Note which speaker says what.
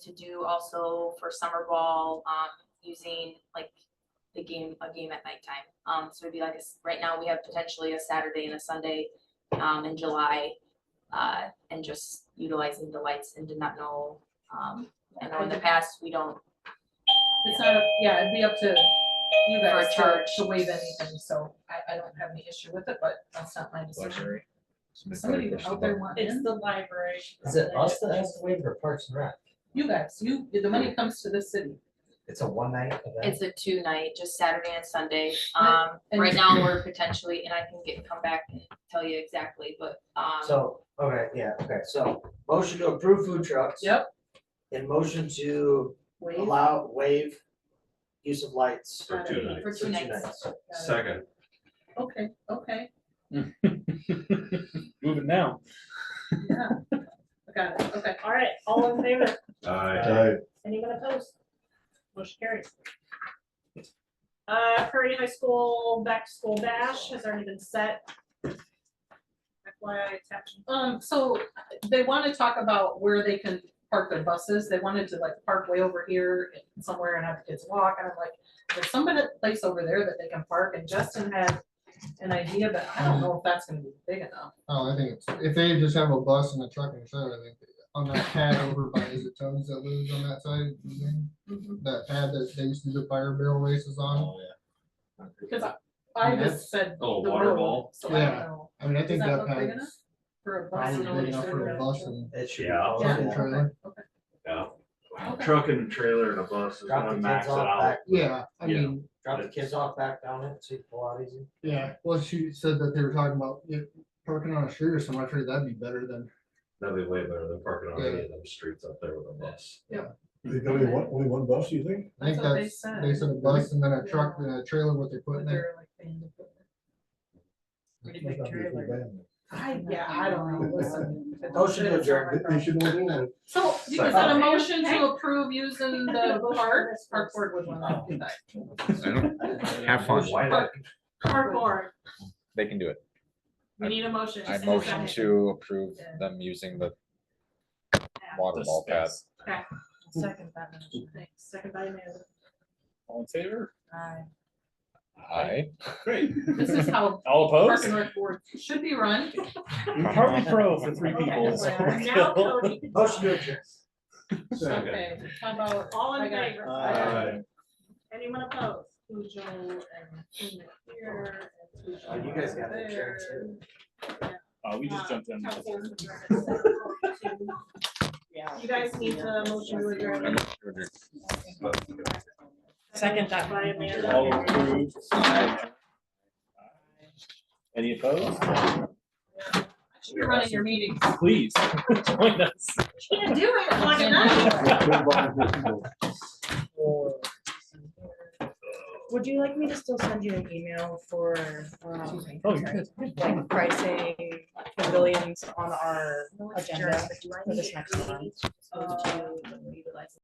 Speaker 1: to do also for summer ball, um, using like the game, a game at nighttime. Um, so it'd be like, a s- right now, we have potentially a Saturday and a Sunday, um, in July. Uh, and just utilizing the lights and did not know, um, I know in the past, we don't,
Speaker 2: It's not, up- yeah, it'd be up to you
Speaker 1: For a
Speaker 2: guys to,
Speaker 1: charge.
Speaker 2: to waive anything, so I, I don't have any issue with it, but that's not my decision.
Speaker 3: Luxury.
Speaker 2: Somebody out there want
Speaker 4: It's
Speaker 2: in,
Speaker 4: the library.
Speaker 5: Is it us that has to waive or Parks and Rec?
Speaker 2: you guys, you, the money comes to the city.
Speaker 5: It's a one night event.
Speaker 1: it's a two night, just Saturday and Sunday. Um,
Speaker 2: And-
Speaker 1: right now, we're potentially, and I can get, come back and tell you exactly, but, um,
Speaker 5: So, okay, yeah, okay, so motion to approve food trucks.
Speaker 2: Yep.
Speaker 5: And motion to
Speaker 2: Waive.
Speaker 5: allow waive use of lights
Speaker 3: For two nights.
Speaker 1: for
Speaker 5: for two
Speaker 1: two nights.
Speaker 5: nights.
Speaker 2: Got it.
Speaker 3: Second.
Speaker 2: Okay, okay,
Speaker 6: Moving now.
Speaker 2: yeah. Got it, okay.
Speaker 4: All right, all in favor?
Speaker 3: Aye.
Speaker 4: Anyone opposed? Motion carries. Uh, Prairie High School Back to School Bash has already been set. FYI, it's happening.
Speaker 2: Um, so they want to talk about where they can park their buses. They wanted to like park way over here somewhere and have the kids walk. And I'm like, there's some kind of place over there that they can park. And Justin had an idea, but I don't know if that's gonna be big enough.
Speaker 7: Oh, I think it's, if they just have a bus and a truck and a trailer, I think, on that pad over by, is it Tony's that lives on that side? of the thing?
Speaker 2: Mm-hmm.
Speaker 7: That pad that they used to do fire barrel races on,
Speaker 3: Oh, yeah.
Speaker 2: Because I, I just said.
Speaker 6: A little
Speaker 2: the
Speaker 6: water
Speaker 2: road,
Speaker 6: ball.
Speaker 2: So I don't
Speaker 7: Yeah.
Speaker 2: know.
Speaker 7: I mean, I think
Speaker 2: Does that
Speaker 7: that
Speaker 2: look big enough?
Speaker 7: pad's
Speaker 2: For a bus. and
Speaker 7: probably
Speaker 2: all
Speaker 7: big
Speaker 2: these
Speaker 7: enough for a
Speaker 2: different-
Speaker 7: bus and
Speaker 5: It should. be
Speaker 3: Yeah.
Speaker 5: all
Speaker 7: truck
Speaker 5: in
Speaker 7: and
Speaker 5: there.
Speaker 7: trailer,
Speaker 3: Yeah. Wow, Truck and a trailer and a bus is
Speaker 5: Drop the
Speaker 3: gonna
Speaker 5: kids
Speaker 3: max it
Speaker 5: off
Speaker 3: out.
Speaker 5: back,
Speaker 7: yeah, I
Speaker 6: Yeah.
Speaker 7: mean,
Speaker 5: drop the kids off back down it, see if Pilates. in.
Speaker 7: yeah, well, she said that they were talking about, yeah, parking on a street or something, I figured that'd be better than,
Speaker 3: That'd be way better than parking on
Speaker 7: Yeah.
Speaker 3: any of them streets up there with a bus.
Speaker 8: There's gonna be one, only one bus, you think?
Speaker 7: I
Speaker 2: That's
Speaker 7: think
Speaker 2: what they
Speaker 7: that's, they said a bus and then a truck and a trailer with
Speaker 2: But
Speaker 7: equipment.
Speaker 2: they're like banned equipment.
Speaker 8: That's not gonna be so bad.
Speaker 2: I, yeah, I don't know. Listen, it
Speaker 5: Motion to
Speaker 2: doesn't-
Speaker 5: adjourn.
Speaker 8: They- They should all do it.
Speaker 2: So is that a
Speaker 4: Second.
Speaker 2: motion to approve using the park, park board would want to do that.
Speaker 6: Have fun.
Speaker 3: Why not?
Speaker 4: Cardboard,
Speaker 9: They can do it.
Speaker 4: we need a motion.
Speaker 9: I
Speaker 4: Just in a
Speaker 9: motion
Speaker 4: second.
Speaker 9: to approve
Speaker 2: Yeah.
Speaker 9: them using the water ball pad.
Speaker 2: Second that motion,
Speaker 4: Thanks. Second by Amanda.
Speaker 6: All in favor?
Speaker 2: aye.
Speaker 9: Aye.
Speaker 6: Great.
Speaker 2: This is how
Speaker 6: All
Speaker 2: Park
Speaker 6: opposed?
Speaker 2: and Rec Board should be run.
Speaker 6: Harvey Pro for three
Speaker 4: Okay,
Speaker 6: people. so we're
Speaker 4: Now
Speaker 6: good.
Speaker 4: Cody.
Speaker 2: Oh,
Speaker 5: Motion to adjourn.
Speaker 3: Second.
Speaker 2: Okay, how about,
Speaker 4: All in
Speaker 2: I got it.
Speaker 4: favor? Anyone opposed? Cujo and Keenan here. and Cujo
Speaker 5: Oh, you guys got it,
Speaker 2: there.
Speaker 5: sure.
Speaker 6: Uh, we just jumped in.
Speaker 4: Council's adjourned. You guys need to motion to adjourn.
Speaker 2: Second that.
Speaker 4: By Amanda.
Speaker 6: All approved. Any opposed?
Speaker 2: Should be running your meetings.
Speaker 6: Please join us.
Speaker 4: Can't do it like a night.
Speaker 6: Oh,
Speaker 10: Would you like me to still send you an email for, um,
Speaker 6: Oh, you're good.
Speaker 10: like pricing pavilions on our agenda for this next month?
Speaker 4: Uh,
Speaker 1: Um,